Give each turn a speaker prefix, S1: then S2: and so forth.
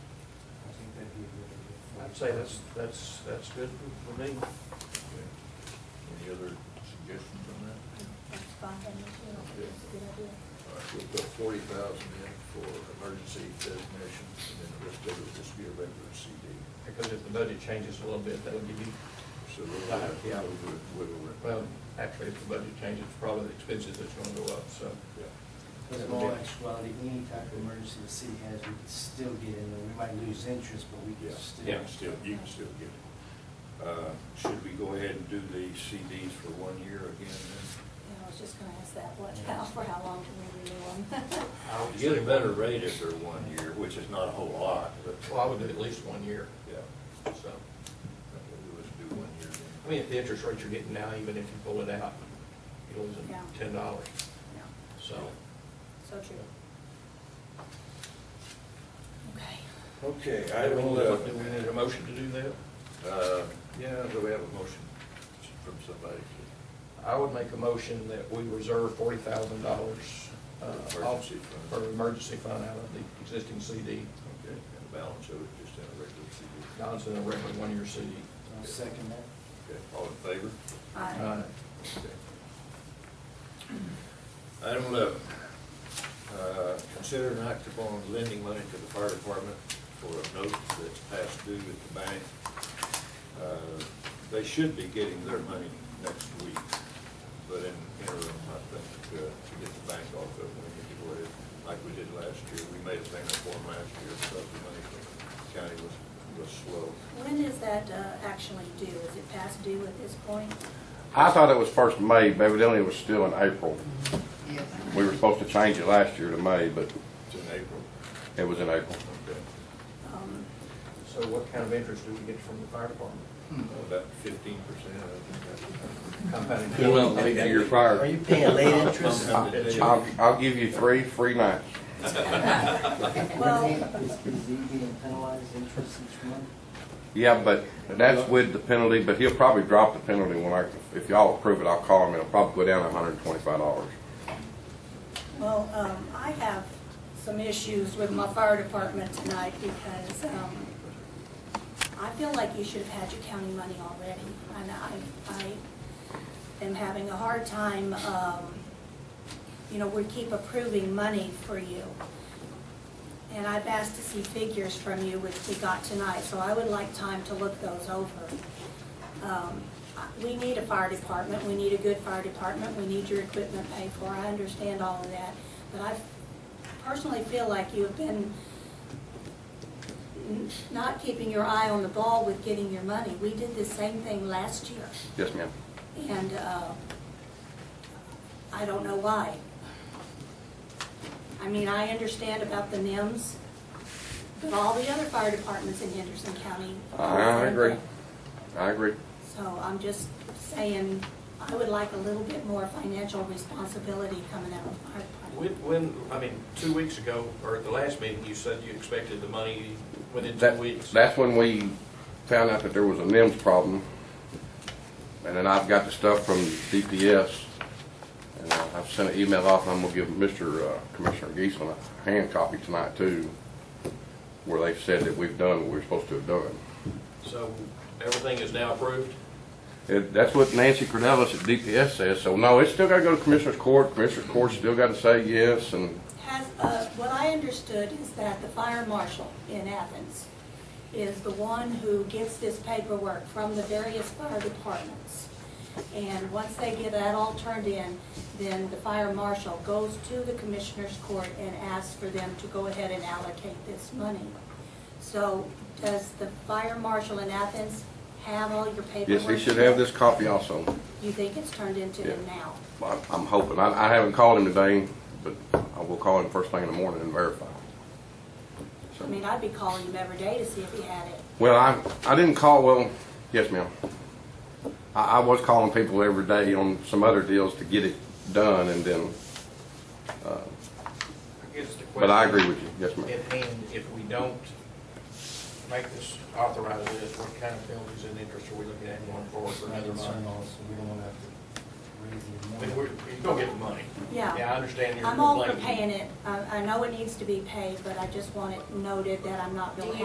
S1: I'd say that's, that's, that's good for me.
S2: Any other suggestions on that?
S3: That's fine, that's a good idea.
S2: All right, we'll put forty thousand in for emergency designation, and then the rest of it will just be a regular CD.
S1: Because if the budget changes a little bit, that'll give you,
S2: So we'll have to
S1: Yeah.
S2: wiggle it- wiggle it.
S1: well, actually, if the budget changes, probably the expenses that's gonna go up, so.
S2: Yeah.
S4: Because in all actuality, any type of emergency the city has, we can still get in there. We might lose interest, but we
S2: Yeah,
S4: can still.
S2: you can still, you can still get it. Uh, Should we go ahead and do the CDs for one year again then?
S3: You know, I was just gonna ask that, what, how, for how long can we renew them?
S2: You Get a better rate if they're one year, which is not a whole lot, but.
S1: Well, I would do at least one year,
S2: Yeah,
S1: so.
S2: let's do one year
S1: I
S2: then.
S1: mean, if the interest rate you're getting now, even if you pull it out, you're losing
S3: Yeah.
S1: ten dollars,
S3: No,
S1: so.
S3: so true. Okay.
S2: Okay, I
S1: Do we
S2: will,
S1: need- Do we need a
S2: uh,
S1: motion to do that?
S2: uh, yeah, do we have a motion from somebody?
S1: I would make a motion that we reserve forty thousand dollars. uh,
S2: Emergency fund.
S1: For emergency fund out of the existing CD,
S2: Okay, and the balance of it just in a regular CD.
S1: Don's in a regular one-year CD.
S4: I'll second that.
S2: Okay, all in favor?
S1: Uh,
S2: Item eleven, uh, consider an act upon lending money to the fire department for a note that's past due at the bank. Uh, They should be getting their money next week, but in interim, I think, uh, to get the bank off of it, we need to go ahead, like we did last year. We made a payment for them last year, so the money from the county was, was slow.
S3: When is that uh, actually due? Is it past due at this point?
S5: I thought it was first of May, but evidently it was still in April. We were supposed to change it last year to May, but
S2: It's in April.
S5: it was in April.
S2: Okay.
S3: Um,
S1: So what kind of interest do we get from the fire department?
S2: About fifteen percent, I think that's.
S1: Compounded
S4: Who else
S1: interest.
S4: made
S5: your
S4: Are you paying late interest?
S1: Compounded
S5: I'll, I'll give you three free nights.
S3: Well-
S4: Is, is he getting penalized interest each month?
S5: Yeah, but that's with the penalty, but he'll probably drop the penalty when I, if y'all approve it, I'll call him, it'll probably go down to hundred and twenty-five dollars.
S3: Well, um, I have some issues with my fire department tonight because um, I feel like you should have had your county money already. And I, I am having a hard time, um, you know, we keep approving money for you. And I've asked to see figures from you, which we got tonight, so I would like time to look those over. Um, We need a fire department, we need a good fire department, we need your equipment paid for, I understand all of that. But I personally feel like you have been n- not keeping your eye on the ball with getting your money. We did the same thing last year,
S5: Yes, ma'am.
S3: and uh, I don't know why. I mean, I understand about the NIMS, but all the other fire departments in Henderson County.
S5: I agree. I agree.
S3: So I'm just saying, I would like a little bit more financial responsibility coming out of the fire
S1: When,
S3: department.
S1: when, I mean, two weeks ago, or at the last meeting, you said you expected the money within two
S5: That-
S1: weeks.
S5: That's when we found out that there was a NIMS problem. And then I've got the stuff from DPS. And I- I've sent an email off, and I'm gonna give Mr. uh, Commissioner Geisman a hand copy tonight too, where they've said that we've done what we're supposed to have done.
S1: So everything is now approved?
S5: It- That's what Nancy Cornelis at DPS says, so no, it's still gotta go to Commissioner's Court. Commissioner's Court's still gotta say yes, and
S3: Has, uh, what I understood is that the fire marshal in Athens is the one who gets this paperwork from the various fire departments. And once they get that all turned in, then the fire marshal goes to the commissioner's court and asks for them to go ahead and allocate this money. So does the fire marshal in Athens have all your paperwork?
S5: yes, he should have this copy also.
S3: You think it's turned into him
S5: Yeah.
S3: now?
S5: I'm I'm hoping. I I haven't called him today, but I will call him first thing in the morning and verify. So-
S3: I mean, I'd be calling him every day to see if he had it.
S5: Well, I, I didn't call, well, yes, ma'am. I, I was calling people every day on some other deals to get it done and then, uh,
S1: I guess the question.
S5: but I agree with you, yes, ma'am.
S1: At hand, if we don't make this, authorize this, what kind of penalties and interest are we looking at going forward for another
S4: Concern
S1: month?
S4: also, we don't wanna have to raise
S1: I
S4: the
S1: mean,
S4: amount.
S1: we're, you're gonna get the money.
S3: Yeah.
S1: Yeah, I understand you're.
S3: I'm all for
S1: complaining.
S3: paying it. I, I know it needs to be paid, but I just want it noted that I'm not
S6: Do
S3: gonna
S6: you